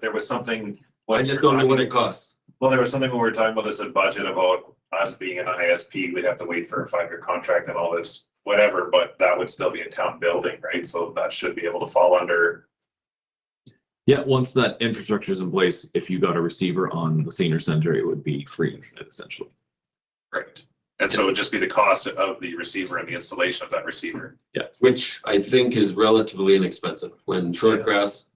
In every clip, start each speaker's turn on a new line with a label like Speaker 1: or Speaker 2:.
Speaker 1: there was something.
Speaker 2: I just don't know what it costs.
Speaker 1: Well, there was something when we were talking about this in budget about us being an ISP, we'd have to wait for a five-year contract and all this, whatever, but that would still be a town building, right? So that should be able to fall under,
Speaker 3: Yeah, once that infrastructure is in place, if you got a receiver on the senior center, it would be free internet essentially.
Speaker 1: right? And so it would just be the cost of the receiver and the installation of that receiver.
Speaker 2: which I think is relatively inexpensive when short
Speaker 1: Yeah.
Speaker 2: grass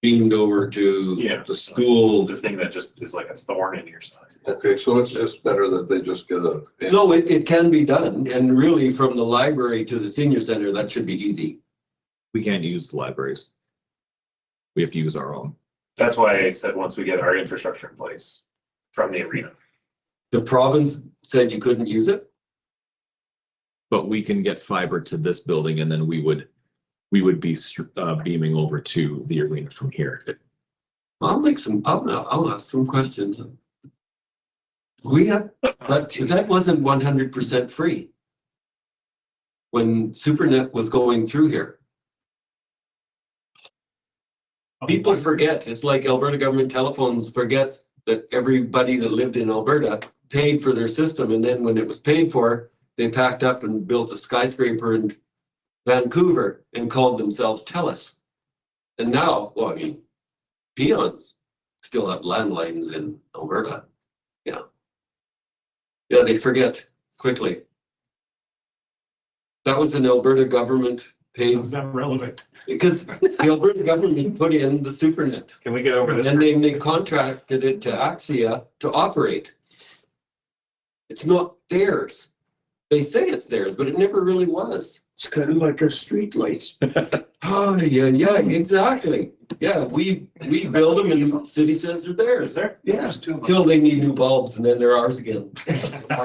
Speaker 2: beamed over to
Speaker 1: Yeah.
Speaker 2: the school.
Speaker 1: The thing that just is like a thorn in your side.
Speaker 4: Okay, so it's just better that they just get a.
Speaker 2: No, it, it can be done. And really from the library to the senior center, that should be easy.
Speaker 3: We can't use the libraries. We have to use our own.
Speaker 1: That's why I said, once we get our infrastructure in place from the arena.
Speaker 2: The province said you couldn't use it.
Speaker 3: But we can get fiber to this building and then we would, we would be str- uh, beaming over to the arena from here.
Speaker 2: I'll make some, I'll, I'll ask some questions. We have, but that wasn't one hundred percent free. When SuperNet was going through here. People forget, it's like Alberta government telephones forgets that everybody that lived in Alberta paid for their system, and then when it was paid for, they packed up and built a skyscraper in Vancouver and called themselves TELUS. And now, well, I mean, peons still have landlines in Alberta, yeah. Yeah, they forget quickly. That was an Alberta government paid,
Speaker 5: Is that relevant?
Speaker 2: because the Alberta government put in the supernet.
Speaker 1: Can we get over
Speaker 2: And then they contracted it to Axia to operate. It's not theirs. They say it's theirs, but it never really was.
Speaker 5: It's kind of like our streetlights.
Speaker 2: Oh, yeah, yeah, exactly. Yeah, we, we build them and the city says they're theirs.
Speaker 5: there?
Speaker 2: Yeah,
Speaker 5: There's two of them.
Speaker 2: until they need new bulbs and then they're ours again.
Speaker 6: I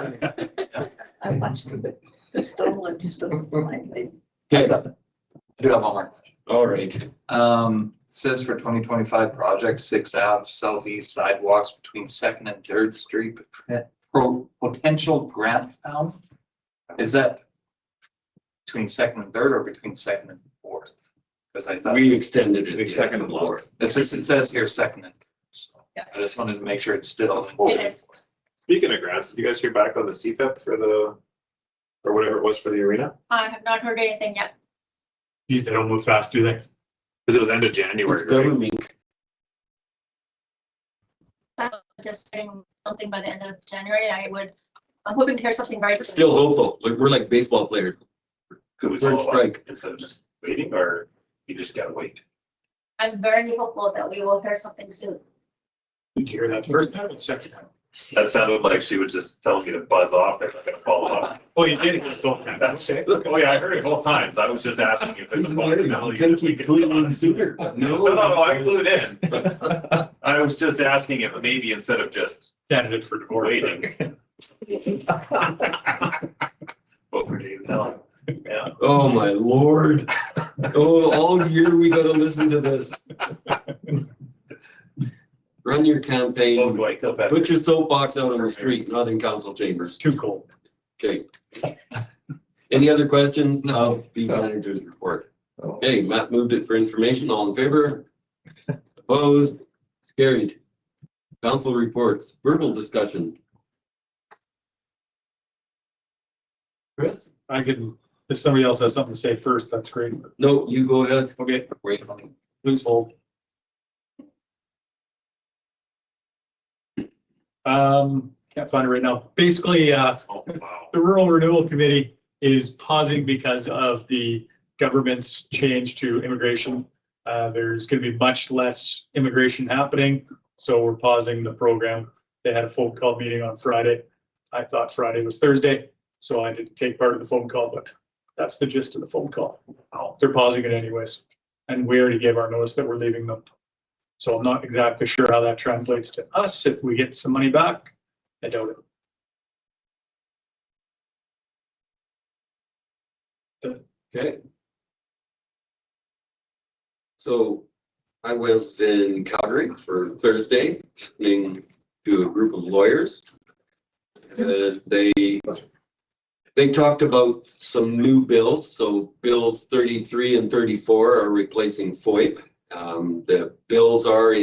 Speaker 6: watched it, but it's stolen, just stolen from my place.
Speaker 2: Okay,
Speaker 7: I do have one more. question.
Speaker 2: all right.
Speaker 7: Um, it says for twenty twenty-five projects, six Ave, southeast sidewalks between Second and Third Street, pot- pro- potential grant found. Is that between Second and Third or between Second and Fourth? Because I thought,
Speaker 2: We extended
Speaker 7: We
Speaker 2: it.
Speaker 7: seconded the law. this is, it says here Second and. Third, so
Speaker 6: Yes.
Speaker 7: I just wanted to make sure it's still.
Speaker 6: It is.
Speaker 1: Speaking of grants, did you guys hear back on the CFIP for the, or whatever it was for the arena?
Speaker 6: I have not heard anything yet.
Speaker 5: Geez, they don't move fast, do they?
Speaker 1: Because it was end of
Speaker 2: It's
Speaker 1: January, right?
Speaker 2: government.
Speaker 6: I'm Just getting something by the end of January. I would, I'm hoping to hear something very soon.
Speaker 2: Still hopeful. Like, We're like baseball players.
Speaker 1: Could we
Speaker 2: Third
Speaker 1: follow up
Speaker 2: strike.
Speaker 1: Instead of just waiting, or you just gotta wait?
Speaker 6: I'm very hopeful that we will hear something soon.
Speaker 5: Did you hear that first time and second time?
Speaker 1: That sounded like she was just telling me to buzz off, they're not gonna follow up.
Speaker 5: Oh, you did it just both times.
Speaker 1: That's it. Oh, yeah, I heard it both times. I was just asking if there's a possibility. that we could-
Speaker 2: sooner.
Speaker 1: No, no, no, I flew it in. I was just asking if maybe instead of just
Speaker 5: Candidate for divorce.
Speaker 1: waiting. Vote for Dave Allen. Yeah.
Speaker 2: Oh, my lord. Oh, all year we gotta listen to this. Run your
Speaker 1: Vote
Speaker 2: campaign,
Speaker 1: Dwight Kilpatrick.
Speaker 2: put your soapbox out on the street, not in council chambers.
Speaker 5: It's too cold.
Speaker 2: Okay. Any other questions of the manager's report?
Speaker 4: No.
Speaker 2: Okay, Matt moved it for information. All in favor? Opposed? It's carried. Council reports, verbal discussion. Chris?
Speaker 5: I can, if somebody else has something to say first, that's great.
Speaker 2: No, you go ahead.
Speaker 5: Okay,
Speaker 2: Wait.
Speaker 5: please hold. Um, can't find it right now. Basically, uh,
Speaker 1: Oh, wow.
Speaker 5: the Rural Renewal Committee is pausing because of the government's change to immigration. Uh, there's gonna be much less immigration happening, so we're pausing the program. They had a phone call meeting on Friday. I thought Friday was Thursday, so I didn't take part of the phone call, but that's the gist of the phone call. They're pausing it anyways, and we already gave our notice that we're leaving them. So I'm not exactly sure how that translates to us, if we get some money back. I doubt it.
Speaker 2: Okay. So I was in Calgary for Thursday, listening to a group of lawyers. Uh, they, they talked about some new bills, so bills thirty-three and thirty-four are replacing FOIP. Um, the bills are